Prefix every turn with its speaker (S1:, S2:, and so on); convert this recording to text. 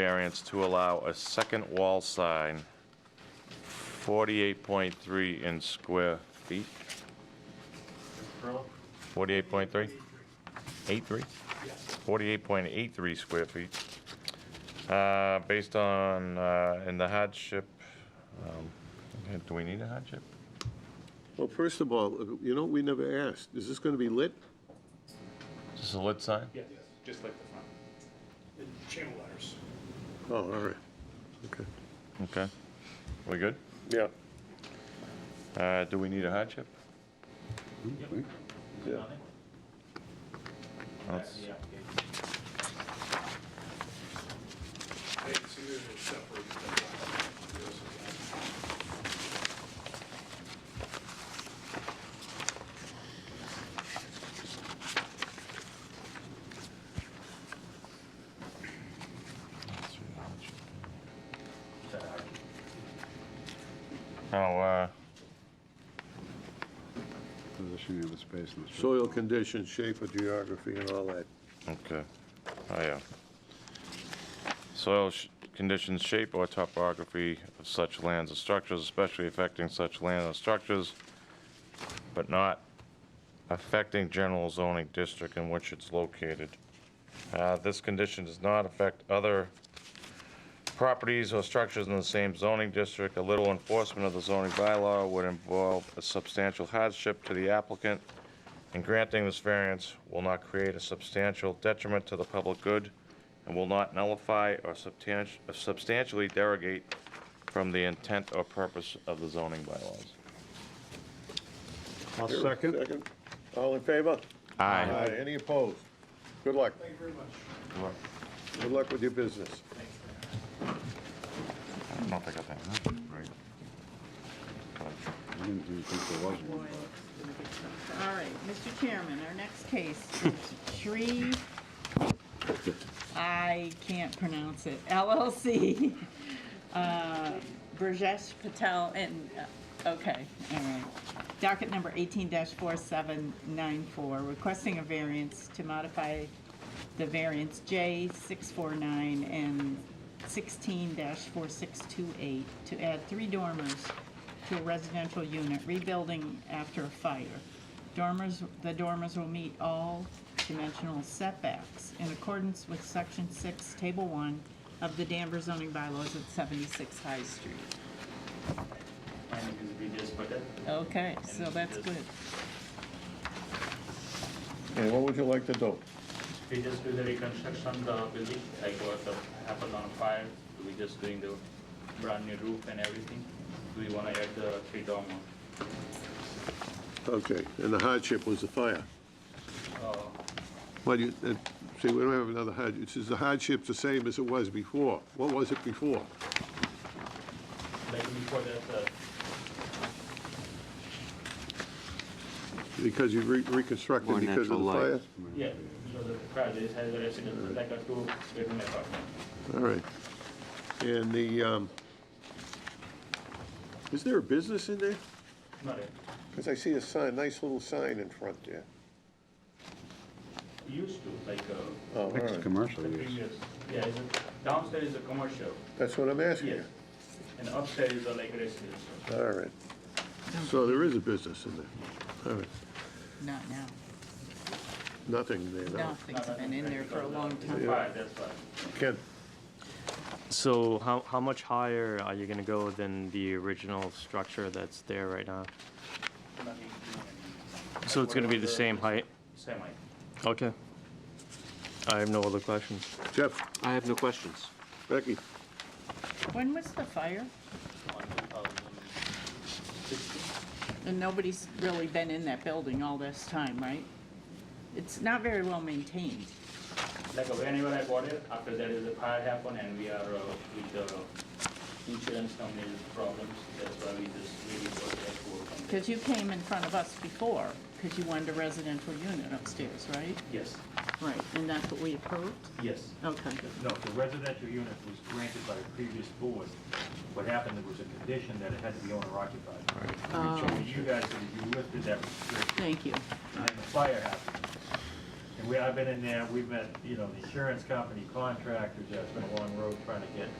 S1: variance to allow a second wall sign, 48.3 in square feet. 48.3? 83? 48.83 square feet. Uh, Based on, uh, in the hardship, um, okay, do we need a hardship?
S2: Well, first of all, you know, we never asked, is this going to be lit?
S1: Is this a lit sign?
S3: Yes, just like the front. Channel letters.
S2: Oh, all right, okay.
S1: Okay. We good?
S2: Yeah.
S1: Uh, Do we need a hardship?
S2: Hmm? Yeah.
S1: Let's-
S3: Hey, see, there's a separate.
S1: Oh, uh,
S4: Position of the space in the structure.
S2: Soil conditions, shape of geography and all that.
S1: okay. Oh, yeah. Soil sh- conditions, shape, or topography of such lands or structures, especially affecting such land or structures, but not affecting general zoning district in which it's located. Uh, This condition does not affect other properties or structures in the same zoning district. A little enforcement of the zoning bylaw would involve a substantial hardship to the applicant, and granting this variance will not create a substantial detriment to the public good and will not nullify or substanti- or substantially derogate from the intent or purpose of the zoning bylaws.
S4: I'll second.
S2: All in favor?
S1: Aye.
S2: Any opposed? Good luck.
S3: Thank you very much.
S2: Good luck with your business.
S1: I don't know if I got that right.
S4: I didn't even think there was one, but.
S5: All right, Mr. Chairman, our next case is Shree, I can't pronounce it, LLC, uh, Burjesh Patel, and, uh, okay, all right. Docket number 18-4794, requesting a variance to modify the variance J649 and 16-4628 to add three dormers to a residential unit rebuilding after a fire. Dormers, the dormers will meet all dimensional setbacks in accordance with Section 6, Table 1 of the Danvers zoning bylaws at 76 High Street.
S6: And you can read this, but that-
S5: Okay, so that's good.
S2: And what would you like to do?
S6: we just do the reconstruction, the building, like what the- happened on fire, do we just doing the brand new roof and everything? Do we wanna add the three dormer?
S2: Okay, and the hardship was the fire.
S6: Uh,
S2: Well, you, uh, see, we don't have another hardship, is the hardship the same as it was before? What was it before?
S6: Like before that, uh,
S2: Because you re- reconstructed because of the fire?
S6: yeah, because the project has a residence, like a two-bedroom apartment.
S2: All right. And the, um, is there a business in there?
S6: Not it.
S2: Because I see a sign, nice little sign in front there.
S6: Used to, like, uh,
S2: Oh, all
S4: It's
S2: right.
S4: commercial
S6: the
S4: use.
S6: previous, yeah, is it- downstairs is a commercial,
S2: That's what I'm asking you.
S6: yes. And upstairs is a like residential.
S2: All right. So there is a business in there. All right.
S5: Not now.
S2: Nothing there now.
S5: Nothing's been in there for a long time.
S6: Fire, that's why.
S2: Ken,
S7: So how, how much higher are you gonna go than the original structure that's there right now?
S6: Nothing, nothing.
S7: So it's gonna be the same height?
S6: Same height.
S7: Okay. I have no other questions.
S2: Jeff,
S8: I have no questions.
S2: Becky,
S5: When was the fire?
S6: on 2016.
S5: And nobody's really been in that building all this time, right? It's not very well maintained.
S6: Like uh, whenever I bought it, after that is the fire happened and we are uh, with the insurance company's problems, that's why we just really got that work on that.
S5: Because you came in front of us before, because you wanted a residential unit upstairs, right?
S6: Yes,
S5: Right, and that's what we approved?
S9: Yes.
S5: Okay.
S9: No, the residential unit was granted by the previous board. What happened, there was a condition that it had to be owner occupied.
S5: Oh,
S9: You guys, you lifted that restriction,
S5: thank you.
S9: and the fire happened.
S6: And we, I've been in there, we've met, you know, the insurance company, contractors, that's been a long road trying to get